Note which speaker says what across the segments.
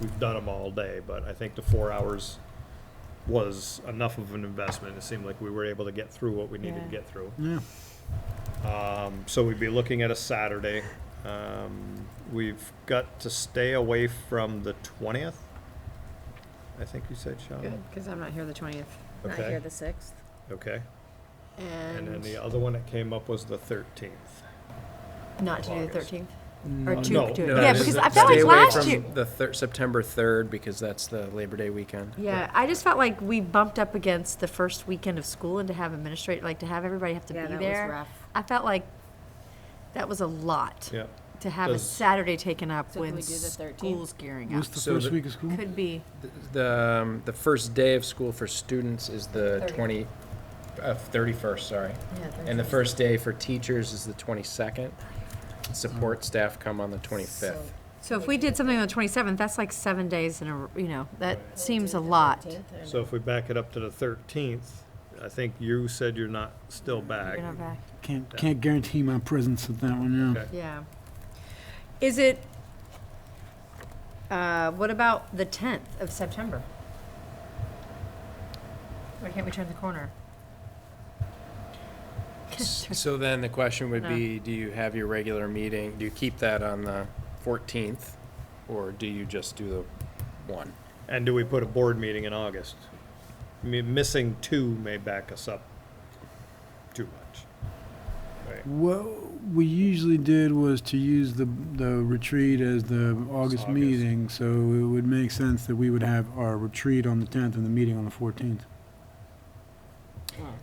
Speaker 1: we've done them all day, but I think the four hours was enough of an investment. It seemed like we were able to get through what we needed to
Speaker 2: Yeah.
Speaker 1: get through.
Speaker 3: Yeah.
Speaker 1: Um, so we'd be looking at a Saturday. Um, we've got to stay away from the twentieth. I think you said,
Speaker 2: Good,
Speaker 1: Sean.
Speaker 2: because I'm not here the twentieth.
Speaker 4: Um, Not
Speaker 1: Okay.
Speaker 4: here the sixth.
Speaker 1: Okay. And then the
Speaker 2: And
Speaker 1: other one that came up was the thirteenth.
Speaker 2: not to do the
Speaker 1: August.
Speaker 2: thirteenth? Or
Speaker 3: No,
Speaker 2: two,
Speaker 1: no,
Speaker 2: two.
Speaker 1: no,
Speaker 2: Yeah,
Speaker 1: no,
Speaker 2: because
Speaker 1: no,
Speaker 2: I felt like
Speaker 5: Stay away
Speaker 2: last
Speaker 5: from
Speaker 2: year.
Speaker 5: The thir- September third, because that's the Labor Day weekend.
Speaker 2: Yeah, I just felt like we bumped up against the first weekend of school and to have administrate, like to have everybody have to
Speaker 4: Yeah,
Speaker 2: be
Speaker 4: that was
Speaker 2: there.
Speaker 4: rough.
Speaker 2: I felt like that was a lot.
Speaker 1: Yeah.
Speaker 2: To have a
Speaker 1: Does-
Speaker 2: Saturday taken up
Speaker 4: So can
Speaker 2: when
Speaker 4: we do the 13th?
Speaker 2: school's gearing up.
Speaker 3: What's the
Speaker 5: So
Speaker 3: first
Speaker 5: the-
Speaker 3: week of school?
Speaker 2: Could be,
Speaker 5: Th- The, um, the first day of school for students is the twenty, uh, thirty-first, sorry. And the first day for teachers is the twenty-second.
Speaker 3: Mm.
Speaker 5: Support staff come on the twenty-fifth.
Speaker 2: so if we did something on the twenty-seventh, that's like seven days in a, you know, that seems a lot.
Speaker 1: So if we back it up to the thirteenth, I think you said you're not still back.
Speaker 2: You're not back.
Speaker 3: Can't, can't guarantee my presence at that one, yeah.
Speaker 1: Okay.
Speaker 2: Yeah. Is it, uh, what about the tenth of September? Why can't we turn the corner?
Speaker 5: So then the question would
Speaker 2: No.
Speaker 5: be, do you have your regular meeting, do you keep that on the fourteenth? Or do you just do the one?
Speaker 1: And do we put a board meeting in August? I mean, missing two may back us up too much. Right.
Speaker 3: What we usually did was to use the, the retreat as the August
Speaker 1: August.
Speaker 3: meeting, so it would make sense that we would have our retreat on the tenth and the meeting on the fourteenth.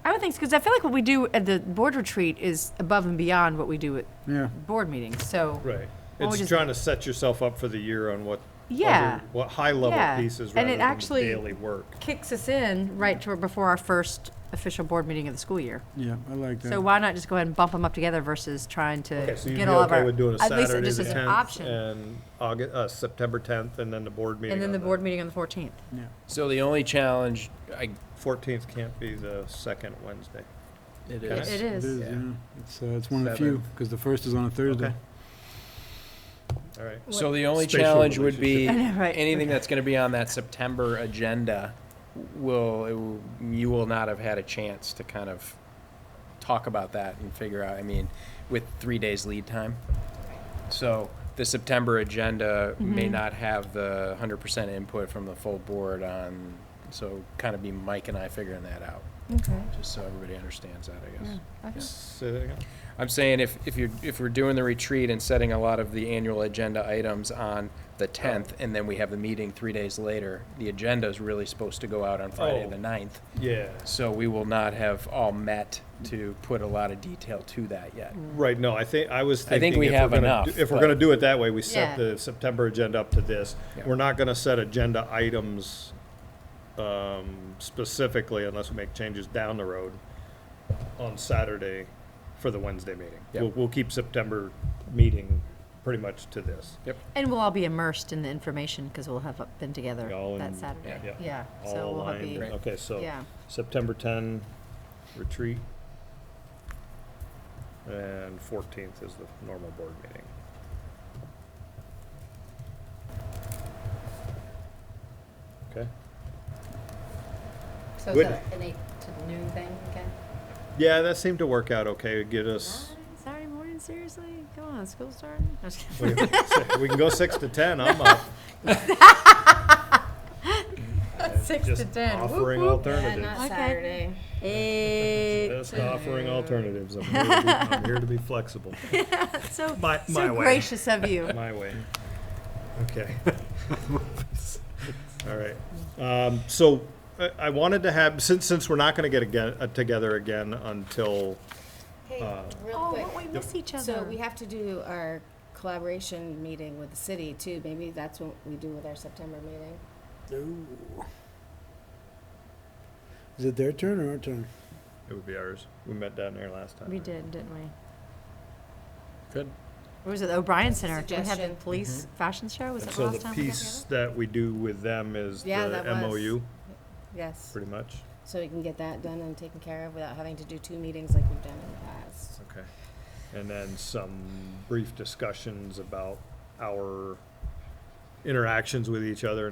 Speaker 2: I would think, because I feel like what we do at the board retreat is above and beyond what we do at
Speaker 3: Yeah,
Speaker 2: board meetings, so.
Speaker 1: Right.
Speaker 2: Well, we
Speaker 1: It's
Speaker 2: just-
Speaker 1: trying to set yourself up for the year on what.
Speaker 2: Yeah.
Speaker 1: other- What high-level
Speaker 2: Yeah.
Speaker 1: pieces
Speaker 2: And
Speaker 1: rather
Speaker 2: it
Speaker 1: than
Speaker 2: actually-
Speaker 1: daily work.
Speaker 2: Kicks us in right to, before our first official board meeting of the school year.
Speaker 3: yeah, I like that.
Speaker 2: So why not just go ahead and bump them up together versus trying to
Speaker 1: Okay, so you'd be
Speaker 2: get all of
Speaker 1: okay
Speaker 2: our,
Speaker 1: with doing a
Speaker 2: at least
Speaker 1: Saturday,
Speaker 2: just
Speaker 1: the
Speaker 2: as an
Speaker 1: tenth,
Speaker 2: option.
Speaker 1: and August, uh, September tenth, and then the board meeting
Speaker 2: And then
Speaker 1: on
Speaker 2: the board meeting on the fourteenth.
Speaker 5: So the only challenge, I,
Speaker 1: Fourteenth can't be the second Wednesday.
Speaker 5: it
Speaker 1: It-
Speaker 5: is.
Speaker 2: It
Speaker 3: It
Speaker 2: is.
Speaker 3: is,
Speaker 5: Yeah.
Speaker 3: yeah. It's, uh, it's one of the few,
Speaker 5: Seven.
Speaker 3: because the first is on a Thursday.
Speaker 1: Okay. All right.
Speaker 5: So the only
Speaker 1: Spatial
Speaker 5: challenge would be,
Speaker 2: I know, right.
Speaker 5: anything that's gonna be on that September agenda will, it will- you will not have had a chance to kind of talk about that and figure out, I mean, with three days lead time. So the September agenda may
Speaker 2: Mm-hmm.
Speaker 5: not have the hundred percent input from the full board on, so kind of be Mike and I figuring that out,
Speaker 2: Okay.
Speaker 5: just so everybody understands that, I guess.
Speaker 1: Say that again.
Speaker 5: I'm saying if, if you're, if we're doing the retreat and setting a lot of the annual agenda items on the tenth, and then we have the meeting three days later, the agenda's really supposed to go out on Friday,
Speaker 1: Oh.
Speaker 5: the ninth.
Speaker 1: Yeah.
Speaker 5: So we will not have all met to put a lot of detail to that yet.
Speaker 1: Right, no, I think, I was
Speaker 5: I think
Speaker 1: thinking.
Speaker 5: we
Speaker 1: if we're
Speaker 5: have
Speaker 1: gonna
Speaker 5: enough,
Speaker 1: do- If we're
Speaker 5: but-
Speaker 1: gonna do it that way, we set
Speaker 2: Yeah.
Speaker 1: the September agenda up to this.
Speaker 5: Yeah.
Speaker 1: We're not gonna set agenda items um, specifically unless we make changes down the road on Saturday for the Wednesday meeting.
Speaker 5: Yeah.
Speaker 1: We'll, we'll keep September meeting pretty much to this.
Speaker 2: And we'll all be immersed in the information because we'll have been together
Speaker 1: All
Speaker 2: that
Speaker 1: in-
Speaker 2: Saturday.
Speaker 1: yeah.
Speaker 2: Yeah, so
Speaker 1: All
Speaker 2: we'll have
Speaker 1: aligned,
Speaker 2: be,
Speaker 5: Right.
Speaker 1: okay, so
Speaker 2: yeah.
Speaker 1: September ten, retreat. And fourteenth is the normal board meeting. Okay?
Speaker 4: So
Speaker 1: Good.
Speaker 4: is that an eight to noon thing again?
Speaker 1: Yeah, that seemed to work out okay, get us,
Speaker 2: Saturday morning, seriously? Come on, school starting? No, just kidding.
Speaker 1: we we can go six to ten, I'm up.
Speaker 2: Six to
Speaker 1: Just
Speaker 2: ten. Whoop,
Speaker 1: Offering
Speaker 2: whoop.
Speaker 4: Yeah,
Speaker 1: alternatives.
Speaker 4: not
Speaker 2: Okay.
Speaker 4: Saturday.
Speaker 2: Hey,
Speaker 1: Just offering alternatives, I'm here to be, I'm here to be flexible,
Speaker 2: that's so,
Speaker 1: My- my
Speaker 2: so
Speaker 1: way.
Speaker 2: gracious of you.
Speaker 1: my way. Okay. All right. Um, so I, I wanted to have, since, since we're not gonna get again, uh, together again until,
Speaker 4: Hey,
Speaker 1: Uh,
Speaker 4: real
Speaker 2: Oh,
Speaker 4: quick.
Speaker 2: what we miss each other.
Speaker 4: So we have to do our collaboration meeting with the city too. Maybe that's what we do with our September meeting.
Speaker 3: Is it their turn or our turn?
Speaker 1: it would be ours. We met down there last time.
Speaker 2: We
Speaker 1: right?
Speaker 2: did, didn't we?
Speaker 5: Good.
Speaker 2: Or was it the O'Brien Center? Did we have the
Speaker 4: Suggestion.
Speaker 2: police fashion show? Was
Speaker 1: And
Speaker 2: that the
Speaker 1: so
Speaker 2: last
Speaker 1: the
Speaker 2: time we got
Speaker 1: piece
Speaker 2: together?
Speaker 1: that we do with them is
Speaker 4: Yeah,
Speaker 1: the
Speaker 4: that was-
Speaker 1: MOU,
Speaker 4: Yes.
Speaker 1: pretty much.
Speaker 4: So we can get that done and taken care of without having to do two meetings like we've done in the past.
Speaker 1: Okay. And then some brief discussions about our interactions with each other